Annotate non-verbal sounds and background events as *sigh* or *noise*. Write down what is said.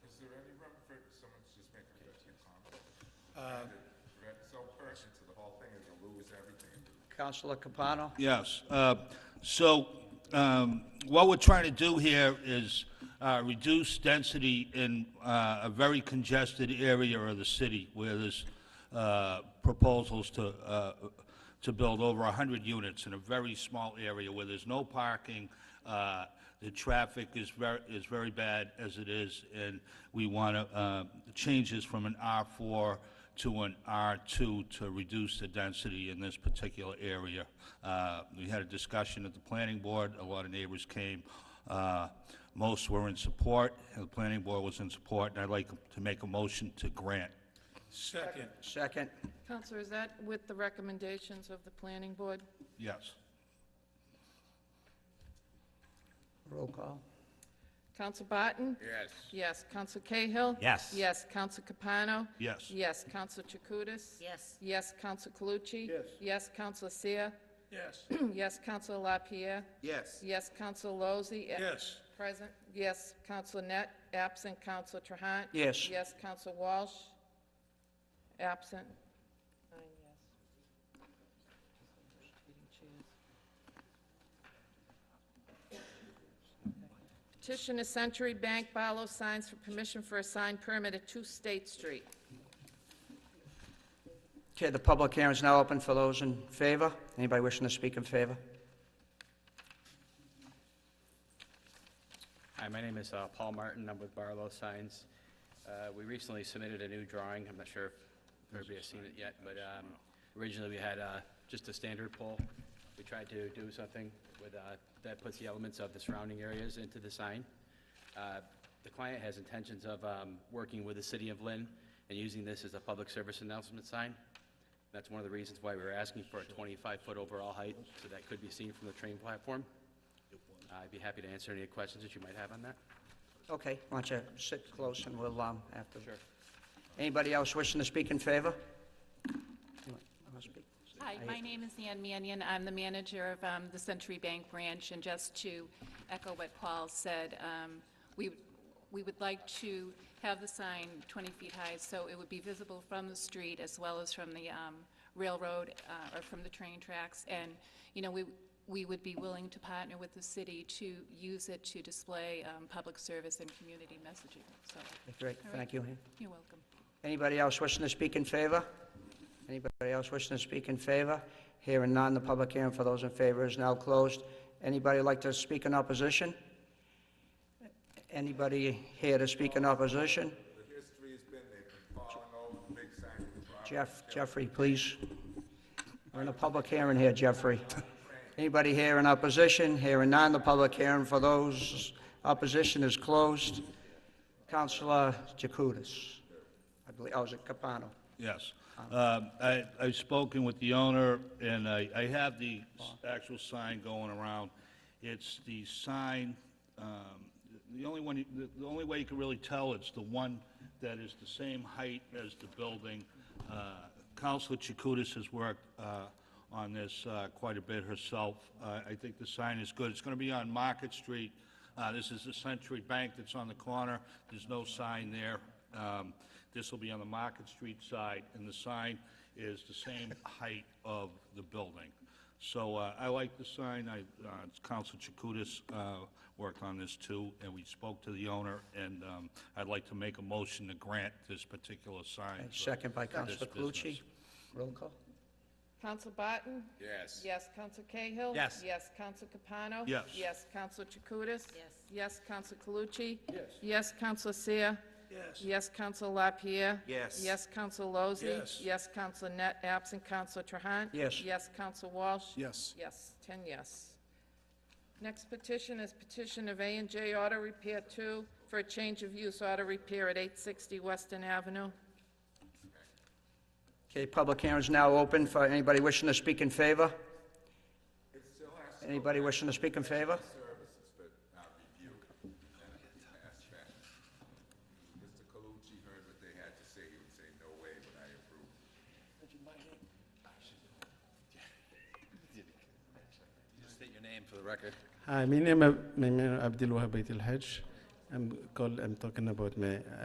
That's so pertinent to the whole thing, and to lose everything. Counselor Capano? Yes. uh, So um, what we're trying to do here is uh, reduce density in uh, a very congested area of the city where there's uh, proposals to, uh, to build over 100 units in a very small area where there's no parking. uh, The traffic is very, is very bad as it is, and we want to change this from an R4 to an R2 to reduce the density in this particular area. Uh, We had a discussion at the planning board, a lot of neighbors came. Uh, Most were in support, and the planning board was in support, and I'd like to make a motion to grant. Second. Second? Counselor, is that with the recommendations of the planning board? Yes. Roll call? Counsel Barton? Yes. Yes. Counsel Cahill? Yes. Yes. Counsel Capano? Yes. Yes. Counsel Chakutis? Yes. Yes. Counsel Calucci? Yes. Yes. Counsel Seer? Yes. *clears throat* Yes. Counsel LaPierre? Yes. Yes. Counsel Lozey? Yes. Present. Yes. Counsel Net? Absent. Counsel Trahan? Yes. Yes. Counsel Walsh? Absent. Nine yes. Petition to Century Bank Barlow Signs for permission for a sign permit at 2 State Street. Okay, the public hearing is now open for those in favor. Anybody wishing to speak in favor? Hi, my name is uh, Paul Martin, I'm with Barlow Signs. Uh, We recently submitted a new drawing, I'm not sure if everybody has seen it yet, but um, originally we had uh, just a standard pole. We tried to do something with, uh, that puts the elements of the surrounding areas into the sign. Uh, The client has intentions of um, working with the city of Lynn and using this as a public service announcement sign. That's one of the reasons why we were asking for a 25-foot overall height, so that could be seen from the train platform. Uh, I'd be happy to answer any questions that you might have on that. Okay, why don't you sit close and we'll, um, after. Sure. Anybody else wishing to speak in favor? You wanna speak? Hi, my name is Ann Mannion. I'm the manager of um, the Century Bank branch, and just to echo what Paul said, um, we, we would like to have the sign 20 feet high, so it would be visible from the street as well as from the um, railroad uh, or from the train tracks. And, you know, we, we would be willing to partner with the city to use it to display um, public service and community messaging, so Great, thank you. you're welcome. Anybody else wishing to speak in favor? Anybody else wishing to speak in favor? Hearing none, the public hearing for those in favor is now closed. Anybody like to speak in opposition? Anybody here to speak in opposition? The history's been, they've been falling over, big sign of the problem. Jeff, Jeffrey, please. We're in a public hearing here, Jeffrey. Anybody here in opposition? Hearing none, the public hearing for those opposition is closed. Counselor Jacutis. I believe, oh, is it Capano? Yes. Um, I- I've spoken with the owner, and I I have the s- actual sign going around. It's the sign, um, the only one, you- the the only way you can really tell, it's the one that is the same height as the building. Uh, Counselor Chakutis has worked uh, on this uh, quite a bit herself. Uh, I think the sign is good. It's going to be on Market Street. Uh, This is the Century Bank that's on the corner. There's no sign there. Um, This will be on the Market Street side, and the sign is the same height of the building. So uh, I like the sign. I, uh, Counsel Chakutis uh, worked on this too, and we spoke to the owner, and um, I'd like to make a motion to grant this particular sign. for Second by this Counselor Calucci. business. Roll call? Counsel Barton? Yes. Yes. Counsel Cahill? Yes. Yes. Counsel Capano? Yes. Yes. Counsel Chakutis? Yes. Yes. Counsel Calucci? Yes. Yes. Counsel Seer? Yes. Yes. Counsel LaPierre? Yes. Yes. Counsel Lozey? Yes. Yes. Counsel Net? Absent. Counsel Trahan? Yes. Yes. Counsel Walsh? Yes. Yes. Ten yes. Next petition is petition of a and J Auto Repair Two for a change of use auto repair at 860 Weston Avenue. Okay, public hearing is now open for anybody wishing to speak in favor? Anybody wishing to speak in favor? Mr. Calucci heard what they had to say, he would say, no way, but I approve. State your name for the record. Uh, Hi, my name is Abdul Wahab Bait Al Hajj. I'm called, I'm talking about my